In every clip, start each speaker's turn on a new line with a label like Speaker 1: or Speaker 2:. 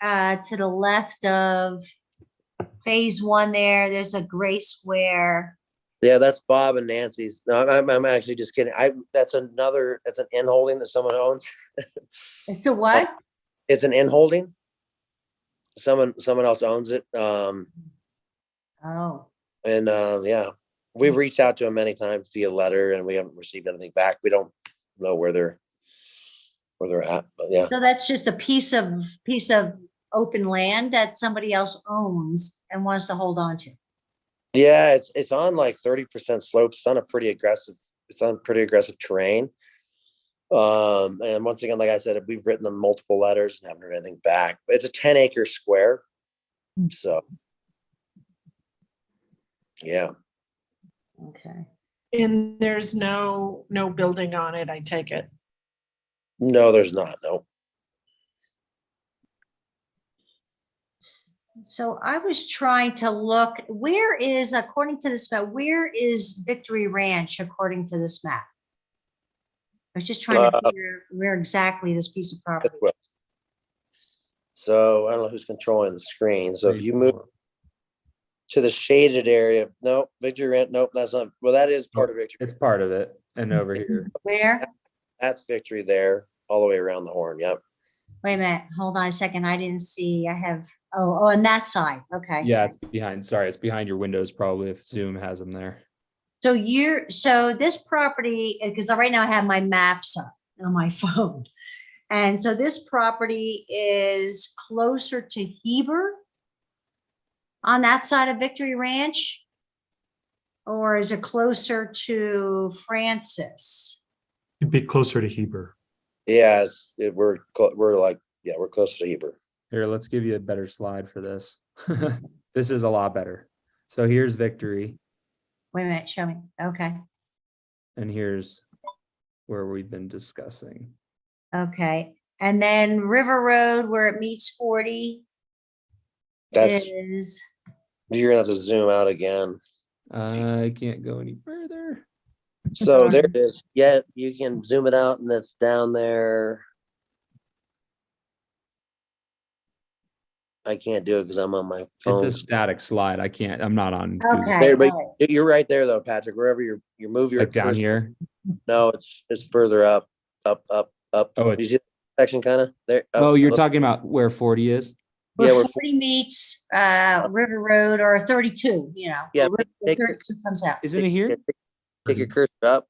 Speaker 1: uh, to the left of phase one there, there's a gray square.
Speaker 2: Yeah, that's Bob and Nancy's. No, I'm, I'm actually just kidding. I, that's another, that's an in holding that someone owns.
Speaker 1: It's a what?
Speaker 2: It's an in holding. Someone, someone else owns it. Um,
Speaker 1: Oh,
Speaker 2: and, uh, yeah, we've reached out to them many times via letter and we haven't received anything back. We don't know where they're, where they're at, but yeah.
Speaker 1: so that's just a piece of, piece of open land that somebody else owns and wants to hold on to.
Speaker 2: Yeah, it's it's on like thirty percent slopes. It's on a pretty aggressive. It's on pretty aggressive terrain. Um, and once again, like I said, we've written them multiple letters and haven't heard anything back. But it's a ten acre square,
Speaker 1: Mm.
Speaker 2: so yeah,
Speaker 1: Okay.
Speaker 3: And there's no, no building on it, I take it.
Speaker 2: no, there's not. No,
Speaker 1: So I was trying to look, where is, according to this map, where is Victory Ranch according to this map? I was just trying to
Speaker 2: Uh,
Speaker 1: figure where exactly this piece of property.
Speaker 2: that's what- So I don't know who's controlling the screen. So if you move to the shaded area, nope, Victory Ranch, nope, that's not. Well, that is part of Victory.
Speaker 4: It's part of it. And over here,
Speaker 1: Where?
Speaker 2: That's Victory there, all the way around the horn. Yep.
Speaker 1: Wait a minute, hold on a second. I didn't see, I have, oh, oh, on that side, okay.
Speaker 4: yeah, it's behind, sorry, it's behind your windows probably if Zoom has them there.
Speaker 1: So you're, so this property, because right now I have my maps up on my phone. And so this property is closer to Heber on that side of Victory Ranch? Or is it closer to Francis?
Speaker 5: It'd be closer to Heber.
Speaker 2: Yeah, it's, it, we're, clo- we're like, yeah, we're close to Heber.
Speaker 4: Here, let's give you a better slide for this. This is a lot better. So here's Victory
Speaker 1: Wait a minute, show me. Okay,
Speaker 4: and here's where we've been discussing.
Speaker 1: okay. And then River Road where it meets 40
Speaker 2: That's,
Speaker 1: is.
Speaker 2: you're gonna have to zoom out again.
Speaker 4: I can't go any further.
Speaker 2: So there it is. Yeah, you can zoom it out and it's down there. I can't do it because I'm on my
Speaker 4: It's a
Speaker 2: phone.
Speaker 4: static slide. I can't, I'm not on. Google.
Speaker 1: Okay.
Speaker 2: There, but
Speaker 1: all
Speaker 2: You're right there though, Patrick, wherever you're, you move your.
Speaker 4: Like down
Speaker 2: cursor-
Speaker 4: here.
Speaker 2: No, it's, it's further up, up, up, up.
Speaker 4: Oh,
Speaker 2: You
Speaker 4: it's-
Speaker 2: see that section kind of there? up,
Speaker 4: Oh, you're
Speaker 2: up.
Speaker 4: talking about where forty is?
Speaker 2: Yeah,
Speaker 1: Where
Speaker 2: we're-
Speaker 1: forty meets, uh, River Road or thirty-two, you know.
Speaker 2: Yeah,
Speaker 1: where
Speaker 2: take-
Speaker 1: Thirty-two comes out.
Speaker 4: Isn't it here? Mm-hmm.
Speaker 2: Take your cursor up,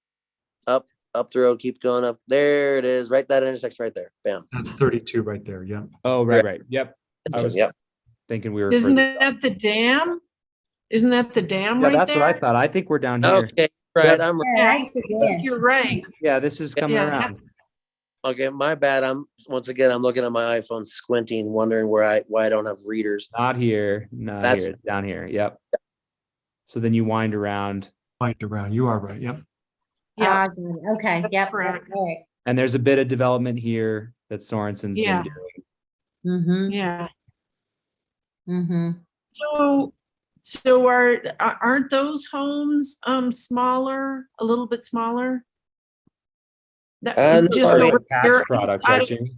Speaker 2: up, up the road, keep going up. There it is, right that intersection right there. Bam.
Speaker 5: That's 32 right there. Yeah.
Speaker 4: Oh, right, right. Yep. I was
Speaker 2: Yep.
Speaker 4: thinking we were.
Speaker 3: Isn't
Speaker 4: further-
Speaker 3: that the dam? Isn't that the dam
Speaker 4: Yeah,
Speaker 3: right there?
Speaker 4: that's what I thought. I think we're down here.
Speaker 2: Oh, Okay, right,
Speaker 4: Yep.
Speaker 2: I'm, right.
Speaker 1: Yeah, I see it.
Speaker 3: You're right.
Speaker 4: Yeah, this is coming
Speaker 3: Yeah.
Speaker 4: around.
Speaker 2: okay, my bad, I'm, once again, I'm looking at my iPhone squinting, wondering where I, why I don't have readers.
Speaker 4: Not here, not
Speaker 2: That's-
Speaker 4: here, it's down here. Yep. So then you wind around
Speaker 5: Right around. You are right. Yep.
Speaker 3: Yeah,
Speaker 1: Ah, good. Okay,
Speaker 3: That's
Speaker 1: yep,
Speaker 3: correct.
Speaker 1: right.
Speaker 4: and there's a bit of development here that Sorensen's
Speaker 3: Yeah.
Speaker 4: been doing.
Speaker 1: Mm-hmm,
Speaker 3: yeah.
Speaker 1: mm-hmm.
Speaker 3: So, so are, a- aren't those homes, um, smaller, a little bit smaller?
Speaker 2: Uh, no,
Speaker 3: That, just
Speaker 2: Part of
Speaker 4: Part
Speaker 3: over
Speaker 4: of the
Speaker 3: here,
Speaker 4: tax product,
Speaker 3: I-
Speaker 4: right, Jamie?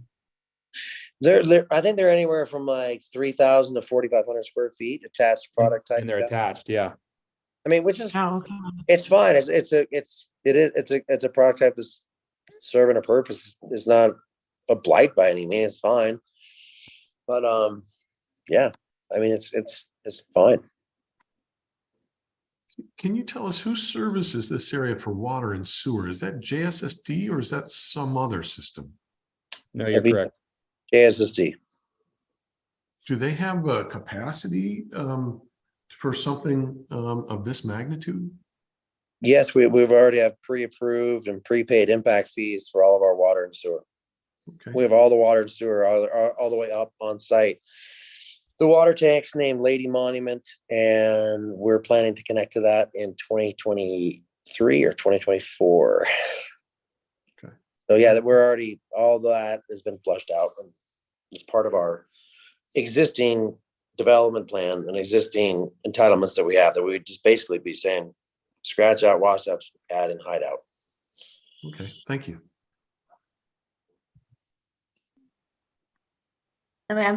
Speaker 2: They're, they're, I think they're anywhere from like three thousand to forty-five hundred square feet attached product type.
Speaker 4: And they're
Speaker 2: stuff.
Speaker 4: attached, yeah.
Speaker 2: I mean, which is,
Speaker 3: Oh, okay.
Speaker 2: it's fine, it's, it's a, it's, it is, it's a, it's a product type that's serving a purpose, it's not a blight by any means, it's fine. But, um, yeah, I mean, it's, it's, it's fine.
Speaker 5: Can you tell us who services this area for water and sewer? Is that JSSD or is that some other system?
Speaker 4: No, you're
Speaker 2: Every-
Speaker 4: correct.
Speaker 2: JSSD.
Speaker 5: Do they have a capacity um, for something um, of this magnitude?
Speaker 2: Yes, we, we've already have pre-approved and prepaid impact fees for all of our water and sewer. We
Speaker 5: Okay.
Speaker 2: have all the water and sewer all, all, all the way up on site. The water tank's named Lady Monument and we're planning to connect to that in twenty twenty-three or twenty twenty-four.
Speaker 5: Okay.
Speaker 2: So yeah, that we're already, all that has been flushed out and it's part of our existing development plan and existing entitlements that we have, that we would just basically be saying, scratch out, wash out, add and hide out.
Speaker 5: Okay. Thank you.
Speaker 1: I mean, I'm